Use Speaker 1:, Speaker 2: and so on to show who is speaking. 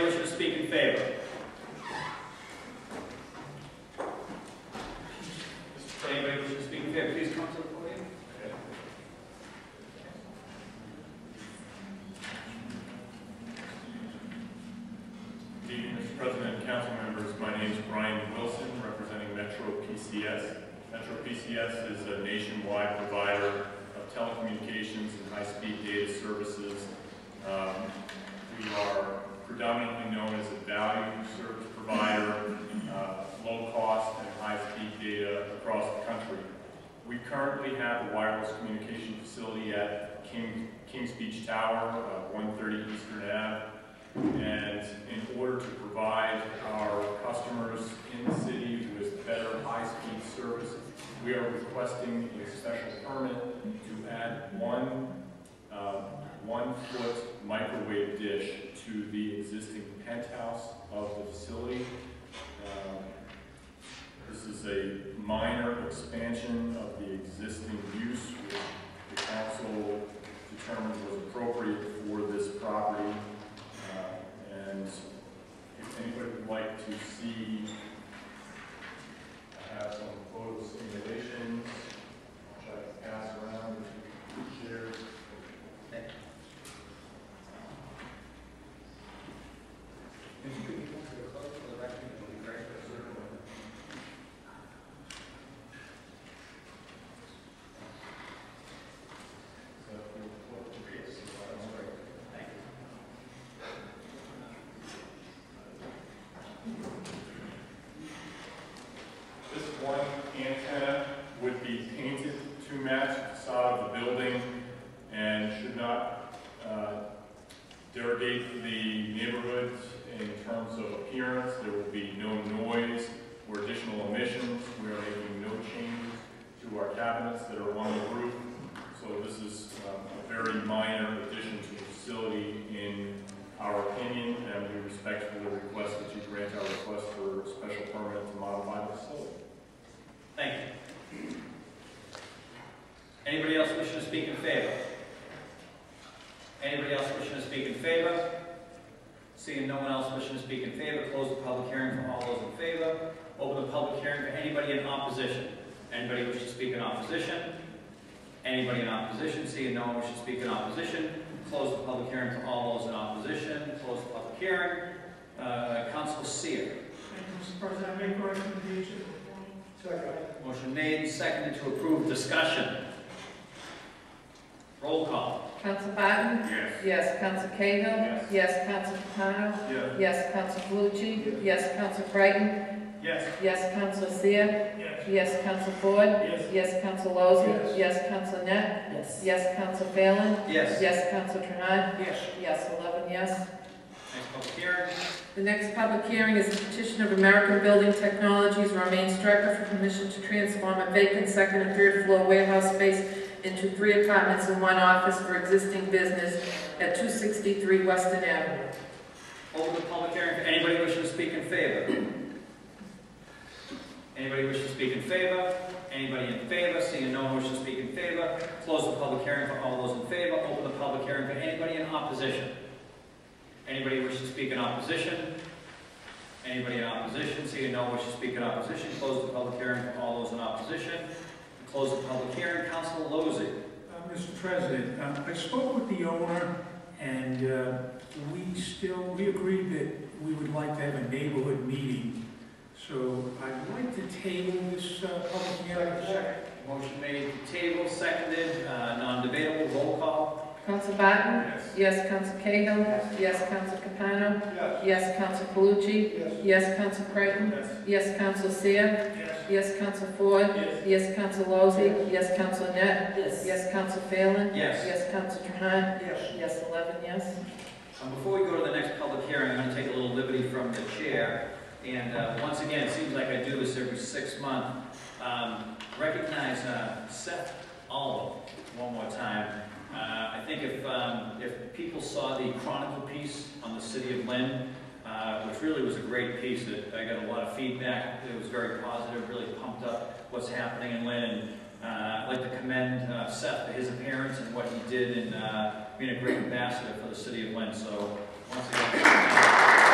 Speaker 1: favor? Mr. Chair, anybody wishing to speak in favor, please come to the podium.
Speaker 2: Good evening, Mr. President and council members. My name is Brian Wilson, representing Metro PCS. Metro PCS is a nationwide provider of telecommunications and high-speed data services. Um, We are predominantly known as a value service provider, uh, low cost and high-speed data across the country. We currently have a wireless communication facility at King- Kings Beach Tower, uh, 130 Eastern Ave. And in order to provide our customers in the city with better high-speed service, we are requesting a special permit to add one, uh, one-foot microwave dish to the existing penthouse of the facility. Um, This is a minor expansion of the existing use, which the council determined was appropriate for this property. Uh, And if anybody would like to see, I have some photo simulations, which I can pass around and share.
Speaker 1: If you could move to the close for the record, it would be great.
Speaker 2: So if you want to create some photos, right?
Speaker 1: Thank you.
Speaker 2: This one antenna would be painted to match the facade of the building and should not uh, derogate the neighborhood in terms of appearance. There will be no noise or additional emissions. We are making no changes to our cabinets that are on the roof. So this is um, a very minor addition to the facility in our opinion, and we respectfully request that you grant our request for special permit to modify the facility.
Speaker 1: Thank you. Anybody else wishing to speak in favor? Anybody else wishing to speak in favor? Seeing no one else wishing to speak in favor, close the public hearing for all those in favor. Open the public hearing for anybody in opposition. Anybody wishing to speak in opposition? Anybody in opposition? Seeing no one wishing to speak in opposition, close the public hearing for all those in opposition. Close the public hearing. Uh, Council Seer.
Speaker 3: Thank you, Mr. President. I make a recommendation. Second.
Speaker 1: Motion made, seconded to approve, discussion. Roll call.
Speaker 4: Council Biden?
Speaker 2: Yes.
Speaker 4: Yes. Council Cahill?
Speaker 2: Yes.
Speaker 4: Yes. Council Capano?
Speaker 2: Yes.
Speaker 4: Yes. Council Calucci? Yes. Council Creighton?
Speaker 2: Yes.
Speaker 4: Yes. Council Seer?
Speaker 2: Yes.
Speaker 4: Yes. Council Ford?
Speaker 2: Yes.
Speaker 4: Yes. Council Lozey?
Speaker 3: Yes.
Speaker 4: Yes. Council Net? Yes. Yes. Council Phelan?
Speaker 1: Yes.
Speaker 4: Yes. Council Trahan?
Speaker 3: Yes.
Speaker 4: Yes. Eleven yes.
Speaker 1: Next public hearing.
Speaker 4: The next public hearing is the petition of American Building Technologies, Romaine Strecker, for permission to transform a vacant second and third floor warehouse space into three apartments and one office for existing business at 263 Weston Avenue.
Speaker 1: Open the public hearing for anybody wishing to speak in favor. Anybody wishing to speak in favor? Anybody in favor? Seeing no one wishing to speak in favor, close the public hearing for all those in favor. Open the public hearing for anybody in opposition. Anybody wishing to speak in opposition? Anybody in opposition? Seeing no one wishing to speak in opposition, close the public hearing for all those in opposition. Close the public hearing. Council Lozey.
Speaker 3: Uh, Mr. President, uh, I spoke with the owner, and uh, we still, we agreed that we would like to have a neighborhood meeting. So I'd like to table this uh, public hearing. Second.
Speaker 1: Motion made to table, seconded, uh, non-debatable, roll call.
Speaker 4: Council Barton?
Speaker 2: Yes.
Speaker 4: Yes, Council Cahill? Yes, Council Capano?
Speaker 2: Yes.
Speaker 4: Yes, Council Calucci?
Speaker 3: Yes.
Speaker 4: Yes, Council Creighton?
Speaker 2: Yes.
Speaker 4: Yes, Council Seer?
Speaker 3: Yes.
Speaker 4: Yes, Council Ford?
Speaker 2: Yes.
Speaker 4: Yes, Council Lozey? Yes, Council Net? Yes, Council Phelan?
Speaker 1: Yes.
Speaker 4: Yes, Council Trahan?
Speaker 3: Yes.
Speaker 4: Yes, 11 yes.
Speaker 1: Um, Before we go to the next public hearing, I'm going to take a little liberty from the chair. And uh, once again, it seems like I do this every six months. Um, Recognize uh, Seth Olive one more time. Uh, I think if, um, if people saw the Chronicle piece on the city of Lynn, uh, which really was a great piece, that I got a lot of feedback, it was very positive, really pumped up what's happening in Lynn. Uh, I'd like to commend uh, Seth for his appearance and what he did in uh, being a great ambassador for the city of Lynn. So, once again,